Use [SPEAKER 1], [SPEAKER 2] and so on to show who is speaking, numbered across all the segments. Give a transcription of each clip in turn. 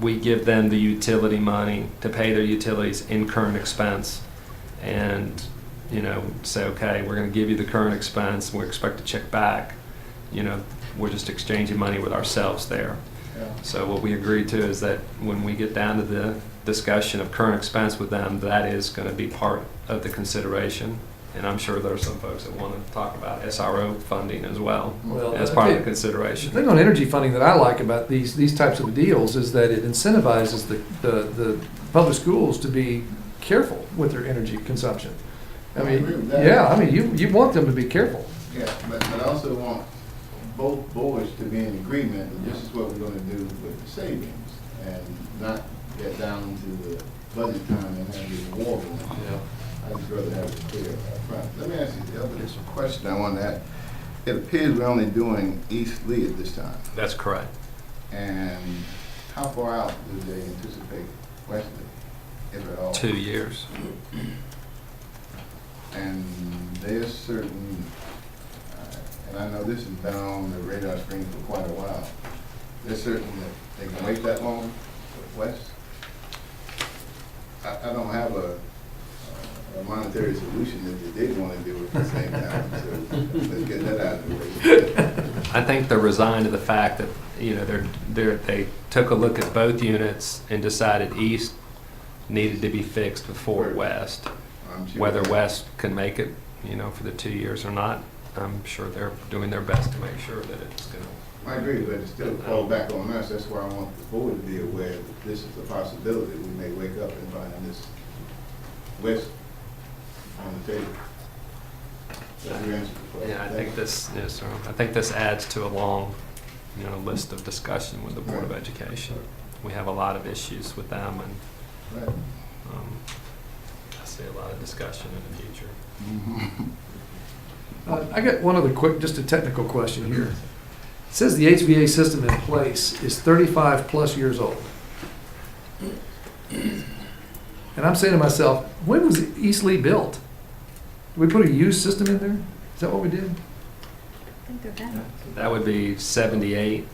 [SPEAKER 1] we give them the utility money to pay their utilities in current expense. And, you know, say, okay, we're gonna give you the current expense, we expect a check back. You know, we're just exchanging money with ourselves there.
[SPEAKER 2] Yeah.
[SPEAKER 1] So what we agreed to is that when we get down to the discussion of current expense with them, that is gonna be part of the consideration. And I'm sure there are some folks that wanna talk about SRO funding as well,
[SPEAKER 2] Well,
[SPEAKER 1] as part of the
[SPEAKER 3] okay. The
[SPEAKER 1] consideration.
[SPEAKER 3] thing on energy funding that I like about these, these types of deals is that it incentivizes the, the, the public schools to be careful with their energy consumption. I
[SPEAKER 2] I agree
[SPEAKER 3] mean,
[SPEAKER 2] with that.
[SPEAKER 3] yeah, I mean, you, you want them to be careful.
[SPEAKER 2] Yeah, but, but I also want both boards to be in agreement that this is what we're gonna do with the savings and not get down to the budget time and have the war room. I'd just rather have it clear up front. Let me ask you, the other just a question I wanted to ask. It appears we're only doing East Lee at this time,
[SPEAKER 1] That's correct.
[SPEAKER 2] and how far out do they anticipate West Lee, if at all?
[SPEAKER 1] Two years.
[SPEAKER 2] And there's certain, uh, and I know this has been on the radar screen for quite a while, there's certain that they can wait that long, Wes? I, I don't have a, a monetary solution if they did want to do it at the same time, so let's get that out of the way.
[SPEAKER 1] I think they're resigned to the fact that, you know, they're, they're, they took a look at both units and decided east needed to be fixed before west.
[SPEAKER 2] I'm sure-
[SPEAKER 1] Whether west can make it, you know, for the two years or not, I'm sure they're doing their best to make sure that it's gonna.
[SPEAKER 2] I agree, but it's still fall back on us, that's why I want the board to be aware that this is a possibility, we may wake up and find this West on the table. That's your answer to the question.
[SPEAKER 1] Yeah, I think this, yes, sir, I think this adds to a long, you know, list of discussion with the Board of Education. We have a lot of issues with them and,
[SPEAKER 2] Right.
[SPEAKER 1] um, I see a lot of discussion in the future.
[SPEAKER 2] Mm-hmm.
[SPEAKER 3] Uh, I got one other quick, just a technical question here. It says the HVA system in place is thirty-five plus years old. And I'm saying to myself, when was East Lee built? Did we put a used system in there? Is that what we did?
[SPEAKER 4] I think they're back.
[SPEAKER 1] That would be seventy-eight,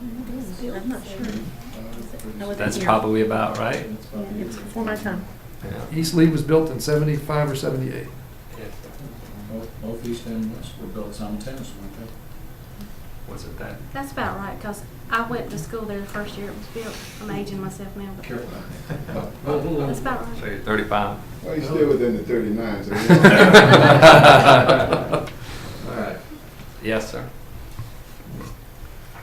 [SPEAKER 4] I'm not sure. I wasn't
[SPEAKER 1] that's
[SPEAKER 4] here.
[SPEAKER 1] probably about right.
[SPEAKER 4] Yeah, Mm-hmm. It's before my time.
[SPEAKER 1] Yeah.
[SPEAKER 3] East Lee was built in seventy-five or seventy-eight.
[SPEAKER 5] Both- Both east and west were built simultaneously, weren't they?
[SPEAKER 1] Was it that?
[SPEAKER 6] That's about right, because I went to school there the first year it was built. I'm aging myself now, but
[SPEAKER 5] Careful.
[SPEAKER 6] that's about right.
[SPEAKER 1] So you're 35.
[SPEAKER 2] Well, he's still within the thirty-nine, so.
[SPEAKER 5] All right.
[SPEAKER 1] Yes, sir.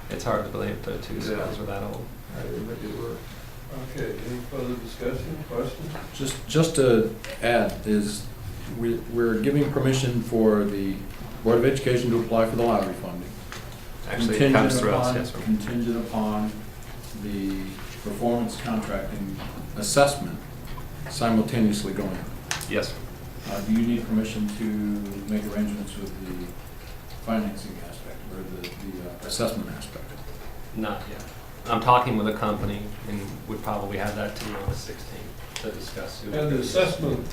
[SPEAKER 1] It's hard to believe the two schools were that old.
[SPEAKER 7] Okay, any further discussion, questions?
[SPEAKER 5] Just, just to add is, we, we're giving permission for the Board of Education to apply for the lottery funding.
[SPEAKER 1] Actually, it
[SPEAKER 5] Contingent
[SPEAKER 1] comes through us,
[SPEAKER 5] upon-
[SPEAKER 1] yes, sir.
[SPEAKER 5] Contingent upon the performance contracting assessment simultaneously going.
[SPEAKER 1] Yes, sir.
[SPEAKER 5] Uh, do you need permission to make arrangements with the financing aspect or the, the uh, assessment aspect?
[SPEAKER 1] not yet. I'm talking with a company and would probably have that to you on the 16th to discuss. who-
[SPEAKER 7] And the assessment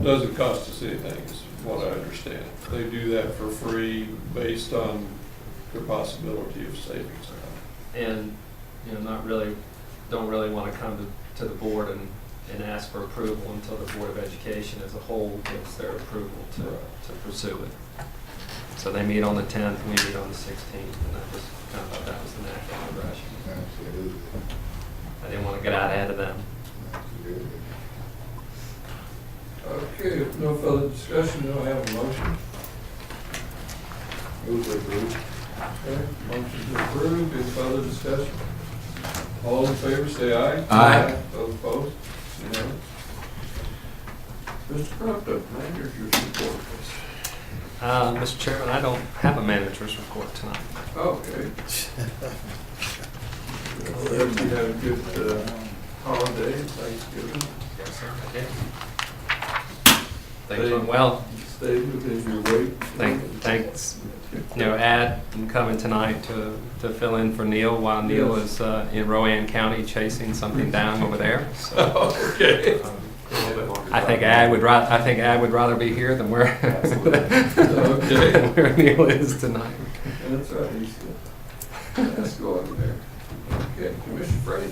[SPEAKER 7] doesn't cost us anything, is what I understand. They do that for free based on the possibility of savings.
[SPEAKER 1] And, you know, not really, don't really want to come to, to the board and, and ask for approval until the Board of Education as a whole gives their approval to, to pursue it. So they meet on the 10th, we meet on the 16th, and I just kind of thought that was the natural progression.
[SPEAKER 2] Absolutely.
[SPEAKER 1] I didn't want to get out ahead of them.
[SPEAKER 2] Absolutely.
[SPEAKER 7] Okay, if no further discussion, do I have a motion?
[SPEAKER 2] Move to approve.
[SPEAKER 7] Okay, motion to approve, any further discussion? All in favor, say aye.
[SPEAKER 5] Aye.
[SPEAKER 7] Those opposed, unanimous. Mr. Crockett, manager's report.
[SPEAKER 1] Uh, Mr. Chairman, I don't have a manager's report tonight.
[SPEAKER 7] Okay. Well, Everybody had a good uh, holiday, Thanksgiving.
[SPEAKER 1] Yes, sir. Things went well.
[SPEAKER 7] Stayed within your weight.
[SPEAKER 1] Thank, thanks, you know, Ad, I'm coming tonight to, to fill in for Neil while Neil
[SPEAKER 7] Yes.
[SPEAKER 1] is uh, in Rowan County chasing something down over there. So,
[SPEAKER 7] Okay.
[SPEAKER 1] um, I think Ad would ra, I think Ad would rather be here than where,
[SPEAKER 7] Okay.
[SPEAKER 1] where Neil is tonight.
[SPEAKER 7] That's right, he's, uh, let's go over there. Okay, Commissioner Brady.